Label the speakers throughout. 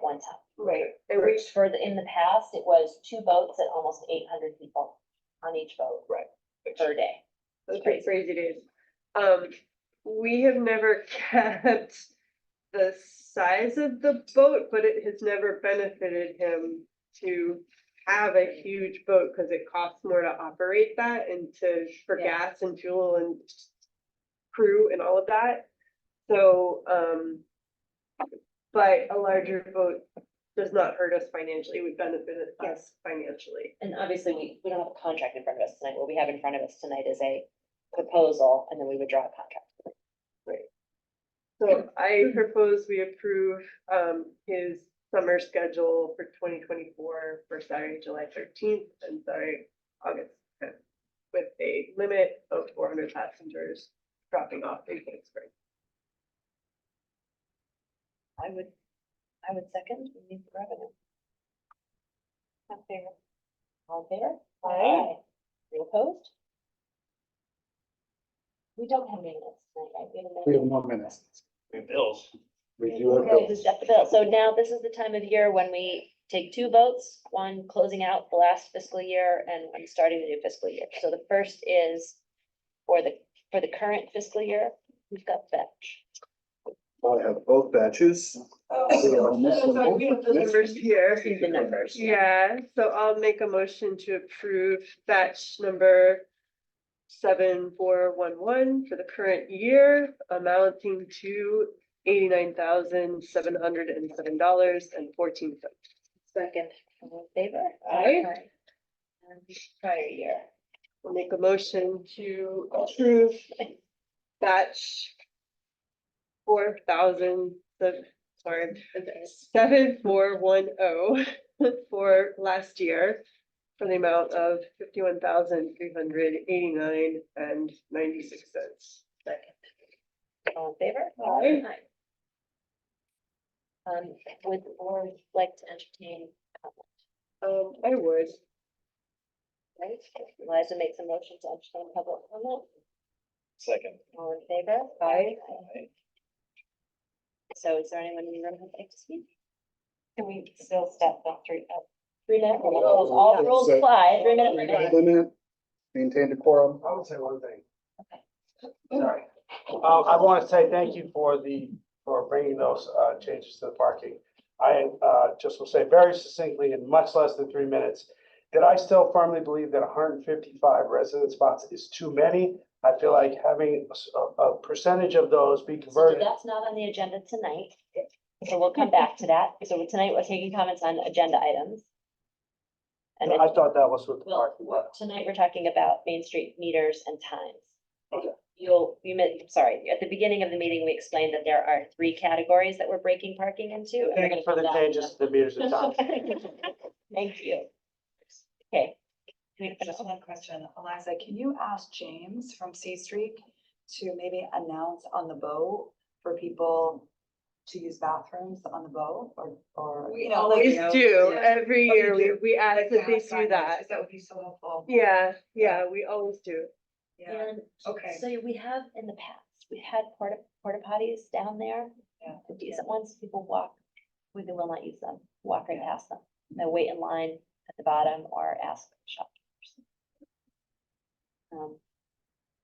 Speaker 1: one time.
Speaker 2: Right,
Speaker 1: It reached for the, in the past, it was two boats and almost eight hundred people on each boat per day.
Speaker 2: that's pretty crazy, dude. Um, we have never kept the size of the boat, but it has never benefited him to have a huge boat, cause it costs more to operate that and to, for
Speaker 1: Yeah.
Speaker 2: gas and fuel and crew and all of that. So, um, but a larger boat does not hurt us financially, It would benefit us financially.
Speaker 1: And obviously, we, we don't have a contract in front of us tonight. What we have in front of us tonight is a proposal and then we would draw a contract.
Speaker 2: So I propose we approve um his summer schedule for twenty twenty-four for Saturday, July thirteenth and Saturday, August tenth. With a limit of four hundred passengers dropping off in Kingsbury.
Speaker 1: I would, I would second, we need the revenue. i favor. All in favor?
Speaker 2: Aye.
Speaker 1: You opposed? We don't have minutes tonight, right? We have a
Speaker 3: We have
Speaker 1: minute.
Speaker 3: one minute.
Speaker 4: We have bills.
Speaker 3: We do have
Speaker 1: Okay,
Speaker 3: bills.
Speaker 1: just up the bill. So now this is the time of year when we take two votes, one closing out the last fiscal year and one starting the new fiscal year. So the first is for the, for the current fiscal year, we've got Fetch.
Speaker 3: I have both batches.
Speaker 2: Oh,
Speaker 3: so sorry,
Speaker 2: we have the numbers here.
Speaker 1: See the numbers.
Speaker 2: Yeah, so I'll make a motion to approve batch number seven, four, one, one for the current year amounting to eighty-nine thousand, seven hundred and seven dollars and fourteen cents.
Speaker 1: Second. All in favor?
Speaker 2: Aye.
Speaker 1: And Prior year.
Speaker 2: I'll make a motion to approve batch four thousand, the, sorry, seven, four, one, oh, for last year for the amount of fifty-one thousand, three hundred, eighty-nine and ninety-six cents.
Speaker 1: All in favor?
Speaker 2: Aye.
Speaker 1: Um, would the board like to entertain,
Speaker 2: Um, I would.
Speaker 1: right? Liza makes a motion to entertain public comment.
Speaker 4: Second.
Speaker 1: All in favor?
Speaker 2: Aye.
Speaker 1: So is there anyone in the room who'd like to speak? Can we still step back three, uh, three minutes?
Speaker 3: Oh,
Speaker 1: All
Speaker 3: yeah.
Speaker 1: rules
Speaker 3: So-
Speaker 1: apply, three minutes.
Speaker 3: Minute, Limit, maintain the quorum.
Speaker 5: I would say one thing. Sorry. Um, I want to say thank you for the, for bringing those, uh, changes to the parking. I, uh, just will say very succinctly in much less than three minutes, that I still firmly believe that hundred and fifty-five resident spots is too many. I feel like having a s- a, a percentage of those be
Speaker 1: So
Speaker 5: converted.
Speaker 1: that's not on the agenda tonight, so we'll come back to that. So tonight, we're taking comments on agenda items. And then,
Speaker 5: I thought that was what the
Speaker 1: well,
Speaker 5: parking was.
Speaker 1: tonight, we're talking about Main Street meters and times.
Speaker 5: Okay.
Speaker 1: You'll, you meant, sorry, at the beginning of the meeting, we explained that there are three categories that we're breaking parking into. and we're
Speaker 5: Thank
Speaker 1: gonna
Speaker 5: you for
Speaker 1: come
Speaker 5: the
Speaker 1: back to
Speaker 5: changes to the meters of time.
Speaker 1: Thank you. Okay.
Speaker 6: Just one question, Eliza, can you ask James from C Street to maybe announce on the boat for people to use bathrooms on the boat or, or?
Speaker 7: We
Speaker 6: you know, like-
Speaker 2: Always do,
Speaker 6: Yeah. Oh,
Speaker 2: every year, we,
Speaker 6: do.
Speaker 2: we ask
Speaker 6: like
Speaker 2: that they
Speaker 6: have
Speaker 2: do that.
Speaker 6: signage, That would be so helpful.
Speaker 2: Yeah, yeah, we always do.
Speaker 6: Yeah, okay.
Speaker 1: So we have in the past, we had porta, porta potties down there.
Speaker 6: Yeah.
Speaker 1: the Decent ones, people walk, we will not use them, walk right past them. They wait in line at the bottom or ask shopkeepers. Um,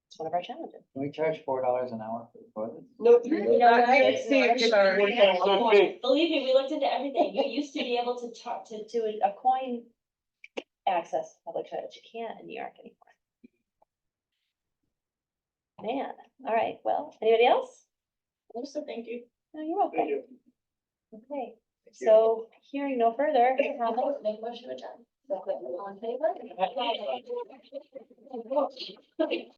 Speaker 1: It's one of our challenges.
Speaker 8: Can we charge four dollars an hour for the toilets?
Speaker 2: Nope.
Speaker 1: know
Speaker 3: You
Speaker 2: not
Speaker 1: what?
Speaker 2: safe,
Speaker 1: It's
Speaker 2: safe,
Speaker 1: not-
Speaker 2: sorry.
Speaker 1: Believe me, we looked into everything. You used to be able to talk to, to a- a coin access public toilets. You can't in New York anymore. Man, all right, well, anybody else? Also, thank you. No, you're
Speaker 5: Thank
Speaker 1: welcome.
Speaker 5: you.
Speaker 1: Okay,
Speaker 8: you.
Speaker 1: so hearing no further. comments, Make a motion to adjourn. All in favor?